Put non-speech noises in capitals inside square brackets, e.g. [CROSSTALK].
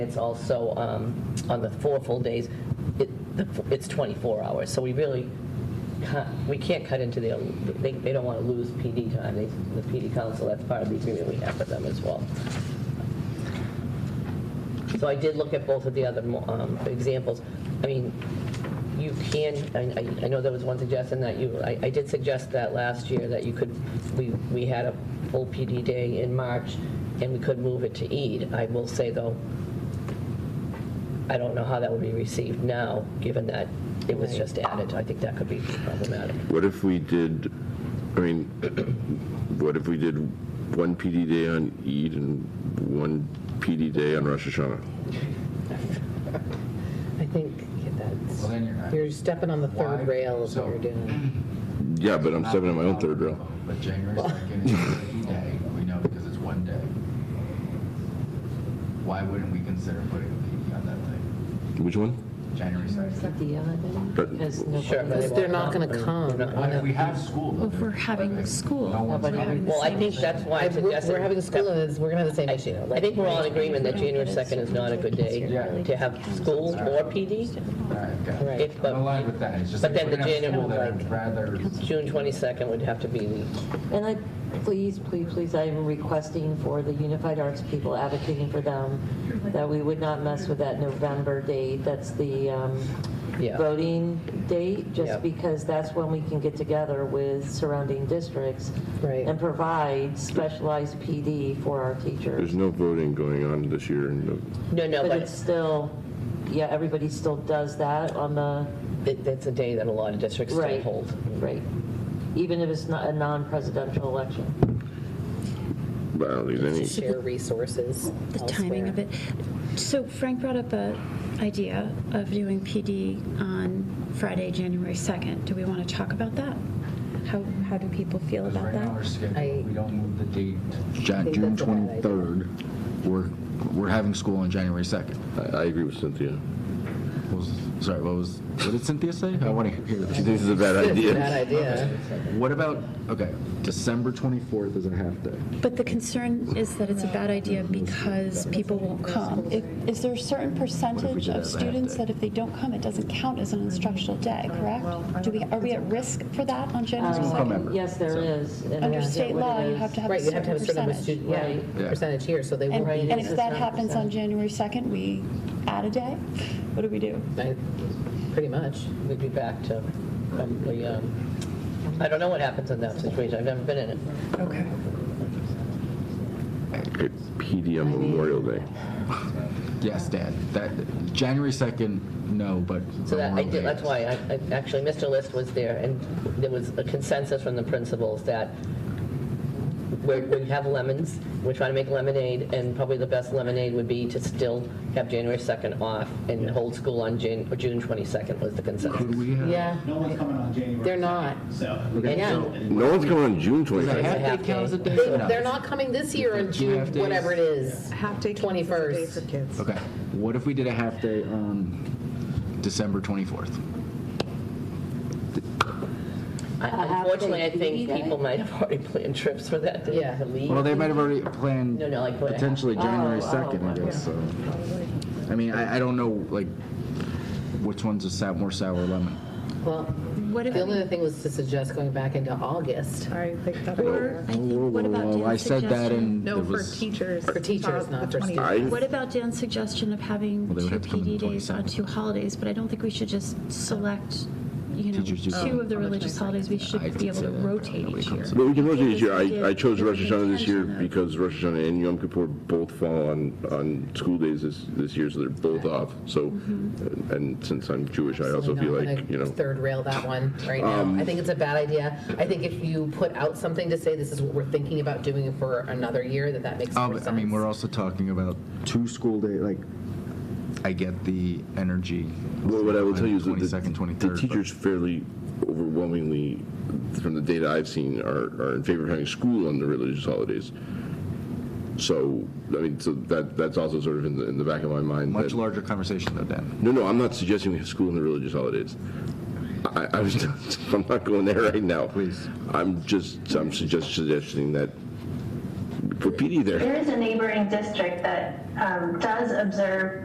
It's also um, on the four full days, it, the- it's 24 hours, so we really, ca- we can't cut into the, they, they don't want to lose PD time, They- the PD council, that's part of the agreement we have with them as well. So I did look at both of the other um, examples. I mean, you can, I- I I know there was one suggestion that you, I I did suggest that last year, that you could, we we had a full PD day in March, and we could move it to Eid. I will say, though, I don't know how that would be received now, given that it was just added. I think that could be problematic. What if we did, I mean, [CLEARS THROAT] what if we did one PD day on Eid and one PD day on Rosh Hashanah? I think Well, that's, then you're not. you're stepping on the third Why? rail of what So- you're doing. Yeah, but I'm stepping on my own third rail. But January's not getting a day, we know because it's one day. Why wouldn't we consider putting a PD on that day? Which one? January 2nd? But Sure, but they They're won't not going to come. They're not- Why do we have school? though? Well, if we're having Like, school, No one's nobody coming. having Well, I think that's why I We're suggested. we're having a school, and it's- we're going to have the same I issue. I think we're all in agreement that January 2nd is not a good day Yeah. to have school or PD. All right, got it. If, I'm but aligned with that, it's just. But like, then we're the gonna have school January- that I'd Rather, June 22nd would have to be the, And I, please, please, please, I am requesting for the Unified Arts people, advocating for them, that we would not mess with that November date, that's the um, Yeah. voting date, Yeah. just because that's when we can get together with surrounding districts Right. and provide specialized PD for our there's teachers. no voting going on this year. and no- no, no, But but it's still, yeah, everybody still does that on the, it- it's a day that a lot of districts still right. hold. Right, even if it's not a non-presidential election. But I don't think any. Share resources the timing of it. So Frank brought up a idea of doing PD on Friday, January 2nd. Do we want to talk about that? How, how do people feel because about right now our that? schedule, I- we don't move the date. I Ja- think June that's a bad idea. 23rd, we're, we're having school on January 2nd. I, I agree with Cynthia. What was- Sorry, what was, what did Cynthia say? I want to hear. She thinks it's a bad Bad idea. idea. What about, okay, December 24th is a half day. But the concern is that it's a bad idea because people won't come. If- Is there a certain percentage did of that half students day? that if they don't come, it doesn't count as an instructional day, correct? Do we, are we at risk for that on January Um, 2nd? member. Yes, there So- is. and Under I forget state what law, it you is. have to have a Right, you have to have a certain number of percentage. student, yeah, Right. Yeah. percentage here, so they won't And, be. and if in that this happens on January 2nd, we add a day? What do we do? I- Pretty much. We'd be back to probably, um, I don't know what happens in that situation. I've never been in it. Okay. Okay, PD on Memorial Day. Yes, Dad, that, January 2nd, no, but. So that, I Memorial did, Day that's is. why, I, I- actually, Mr. List was there, and there was a consensus from the principals that we're, we have lemons, we're trying to make lemonade, and probably the best lemonade would be to still have January 2nd off and hold school on Jan, or June 22nd was the Could consensus. we have? Yeah, No one's coming on January. they're not. So, Yeah. No one's coming on June Does a 22nd. half day count as a day? They- No. They're not coming this year on Do you June, have days? whatever it is. Half-day Twenty first. for kids. Okay, what if we did a half day on December 24th? I- Unfortunately, I think people might have already planned trips for that day Yeah. to leave. Well, they might have already planned No, no, like what- potentially January Oh, oh, 2nd, I guess, so. I mean, I, I don't know, like, which one's a sou- more sour lemon? Well, What if the only we other thing was to suggest going back into August. I think that. Or, I Whoa, think, what whoa, about whoa, uh, I Dan's said that suggestion? and No, there for was. teachers. For teachers, uh, not the for 20 I- What about Dan's suggestion of having Well, they would two have to come in PD the days on 22nd. two holidays? But I don't think we should just select, you know, Teachers do come two of the on the religious holidays. We I should did be able say to that, but rotate nobody each year. comes. But we can rotate each year. I, I chose If Rosh we Hashanah this year intention of- because Rosh Hashanah and Yom Kippur both fall on, on school days this, this year, so they're both off. So, and since I'm Jewish, I also feel Absolutely not like, gonna Mm-hmm. you know, Um, Third rail that one right now. I think it's a bad idea. I think if you put out something to say this is what we're thinking about doing for another year, that that makes Oh, more but, sense. I mean, we're also talking about two school day, like, I get the energy. well, what I will tell you is that Twenty-second, the, the twenty-third. teachers fairly overwhelmingly, from the data I've seen, are, are in favor of having school on the religious holidays. So, I mean, so that, that's also sort of in the, in the back of my mind. Much that- larger conversation though, Dan. No, no, I'm not suggesting we have school on the religious holidays. I, I'm, just- [LAUGHS] I'm not going there right now. Please. I'm just, I'm suggest, suggesting that for PD there. There is a neighboring district that um, does observe